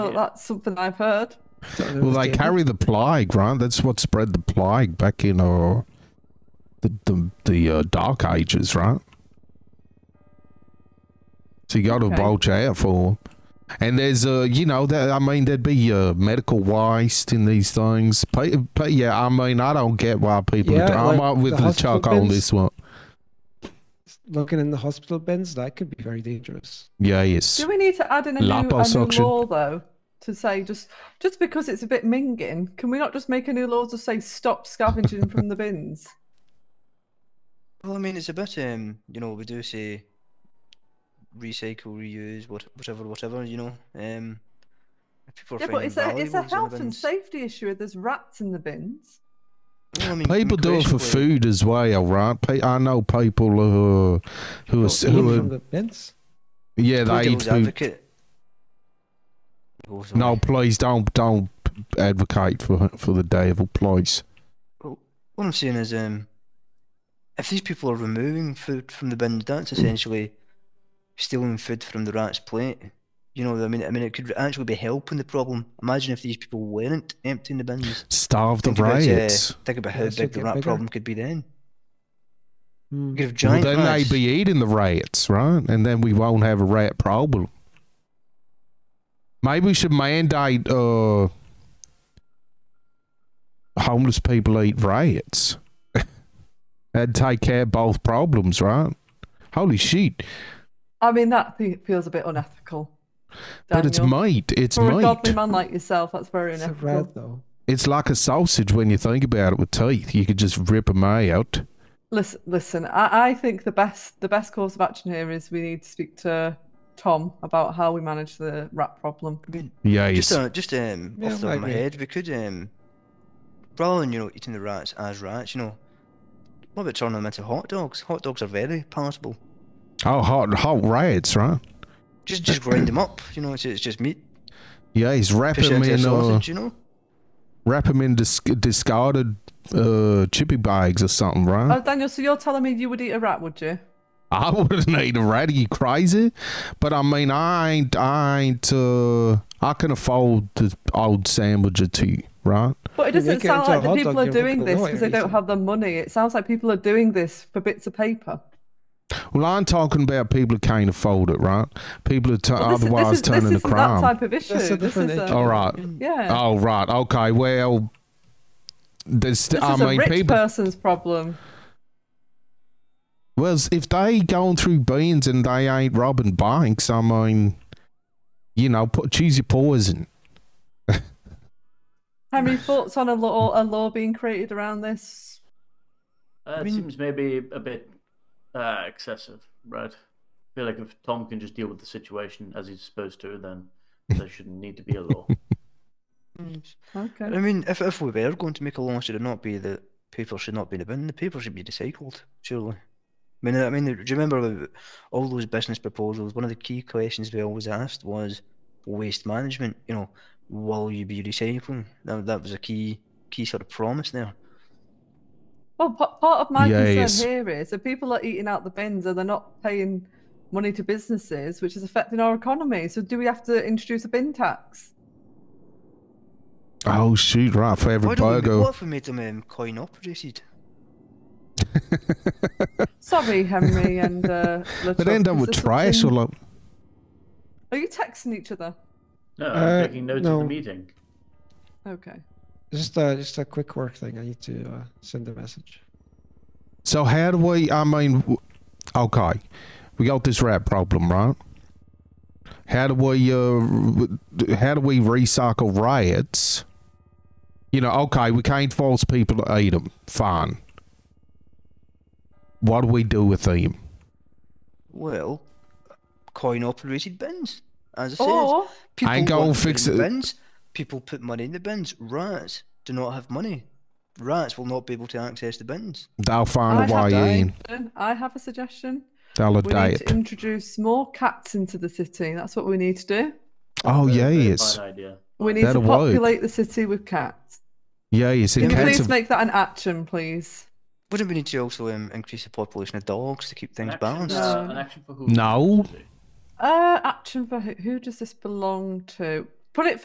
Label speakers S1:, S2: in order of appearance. S1: Well, Oh, that's something I've heard.
S2: Well, they carry the plague, right? That's what spread the plague back in uh, the the, the uh, Dark Ages, right? So you got to
S1: Okay.
S2: watch out for 'em. And there's, uh, you know, that I mean, there'd be uh, medical waste in these things. Pe- pe- yeah, I mean, I don't get why people.
S3: Yeah,
S2: do- I'm
S3: like
S2: up with
S3: the
S2: the,
S3: hospital
S2: chalk on
S3: bins.
S2: this one.
S3: Looking in the hospital bins, that could be very dangerous.
S2: Yeah, yes.
S1: Do we need to add in a new, a
S2: Liposuction.
S1: new law though to say just just because it's a bit minging, can we not just make a new law to say stop scavenging from the bins?
S4: Well, I mean, it's a bit, um, you know, we do say recycle, reuse, what, whatever, whatever, you know. Um, if people are
S1: yeah, but
S4: finding
S1: it's a it's a
S4: valuables in the
S1: health and
S4: bins-
S1: safety issue. If there's rats in the bins,
S4: Well, I mean,
S2: People do it for
S4: basically-
S2: food as well, right? Pe- I know people who are, who are, s-
S3: Eat
S2: who
S3: from
S2: are
S3: the bins.
S2: yeah,
S4: play
S2: they eat
S4: devil's
S2: food.
S4: advocate. Oh, sorry.
S2: No, please don't don't advocate for for the devil, please.
S4: What I'm saying is, um, if these people are removing food from the bins, that's essentially stealing food from the rat's plate. You know, what I mean, I mean, it could actually be helping the problem. Imagine if these people weren't emptying the bins.
S2: Starve the
S4: Think about, uh,
S2: riots.
S4: think about
S3: Yeah,
S4: how
S3: it's still
S4: big the
S3: get
S4: rat
S3: bigger.
S4: problem could be then.
S3: Hmm.
S4: You could have
S2: Well,
S4: giant
S2: then
S4: rats.
S2: they'd be eating the rats, right? And then we won't have a rat problem. Maybe we should mandate uh homeless people eat rats. and take care of both problems, right? Holy shit.
S1: I mean that thi- feels a bit unethical.
S2: But it's
S1: Daniel.
S2: meat. It's
S1: for a
S2: meat.
S1: godly man like yourself. That's very
S3: It's a
S1: unethical.
S3: rat, though.
S2: It's like a sausage when you think about it with teeth. You could just rip them out.
S1: Listen, listen. I, I think the best the best course of action here is we need to speak to Tom about how we manage the rat problem.
S4: I mean,
S2: Yes.
S4: just, uh, just um,
S3: Yeah,
S4: off the top
S3: I
S4: of my
S3: agree.
S4: head, we could, um, rather than you know eating the rats as rats, you know, what about turning them into hot dogs? Hot dogs are very palatable.
S2: Oh, hot, hot rats, right?
S4: Just, just grind them up. You know, it's, it's just meat.
S2: Yeah, he's
S4: Fish
S2: wrapping
S4: into a
S2: in uh,
S4: sausage, you know.
S2: wrap 'em in dis- discarded uh, chippy bags or something, right?
S1: Oh, Daniel, so you're telling me you would eat a rat, would you?
S2: I wouldn't eat a rat. Are you crazy? But I mean, I ain't, I ain't, uh, I can afford the old sandwich or two, right?
S1: But it
S3: You
S1: doesn't
S3: make it
S1: sound
S3: into a
S1: like the
S3: hot
S1: people
S3: dog,
S1: are
S3: you're
S1: doing
S3: looking
S1: this
S3: annoying,
S1: because they
S3: you
S1: don't
S3: see.
S1: have the money. It sounds like people are doing this for bits of paper.
S2: Well, I'm talking about people who can't afford it, right? People who tu-
S1: Well, this, is-
S2: otherwise
S1: this is,
S2: turning
S1: this
S2: to
S1: isn't that
S2: crime.
S1: type of issue.
S3: That's a
S1: This
S3: different
S1: is
S3: issue.
S1: a,
S2: All right.
S1: yeah.
S2: Oh, right. Okay. Well, there's,
S1: this
S2: I
S1: is a
S2: mean,
S1: rich
S2: people.
S1: person's problem.
S2: Well, if they going through beans and they ain't robbing banks, I mean, you know, put, choose your poison.
S1: Henry, thoughts on a law a law being created around this?
S5: Uh, it
S4: mean-
S5: seems maybe a bit uh, excessive, right? I feel like if Tom can just deal with the situation as he's supposed to, then there shouldn't need to be a law.
S3: Mm.
S1: Okay.
S4: I mean, if if we were going to make a law, should it not be that paper should not be in the bin? The paper should be recycled, surely. I mean, I mean, do you remember the- all those business proposals? One of the key questions we always asked was waste management. You know, will you be recycling? That that was a key key sort of promise there.
S1: Well, p- part of my
S2: Yes.
S1: concern here is that people are eating out the bins and they're not paying money to businesses, which is affecting our economy. So, do we have to introduce a bin tax?
S2: Oh shoot! Right for every
S4: Why don't we ma-
S2: burger.
S4: what if we made them um, coin operated?
S1: Sorry, Henry and uh,
S2: But
S1: Luchuk,
S2: end up
S1: is
S2: with
S1: there
S2: trash or
S1: something-
S2: like.
S1: Are you texting each other?
S5: No,
S3: Uh,
S5: I'm taking notes of
S3: no.
S5: the meeting.
S1: Okay.
S3: Just a just a quick work thing. I need to uh, send a message.
S2: So how do we? I mean, w- okay, we got this rat problem, right? How do we? Uh, w- how do we recycle rats? You know, okay, we can't force people to eat them. Fine. What do we do with them?
S4: Well, coin operated bins, as I said.
S1: Or
S4: People
S2: ain't gonna
S4: want to put
S2: fix
S4: in the
S2: it.
S4: bins. People put money in the bins. Rats do not have money. Rats will not be able to access the bins.
S2: They'll
S1: I
S2: find a
S1: have,
S2: way in.
S1: I have a suggestion.
S2: They'll
S1: We need
S2: adapt.
S1: to introduce more cats into the city. That's what we need to do.
S2: Oh
S5: Very- very
S2: yes,
S5: Fine idea.
S1: We need
S2: That'll
S1: to
S2: work.
S1: populate the city with cats.
S2: yes.
S1: Can
S2: And
S1: you
S2: cats
S1: please
S2: have,
S1: make that an action, please?
S4: Wouldn't we need to also um, increase the population of dogs to keep
S5: An
S4: things
S5: action,
S4: balanced?
S5: uh, an action for who?
S2: No.
S1: Uh, action for who, who does this belong to? put it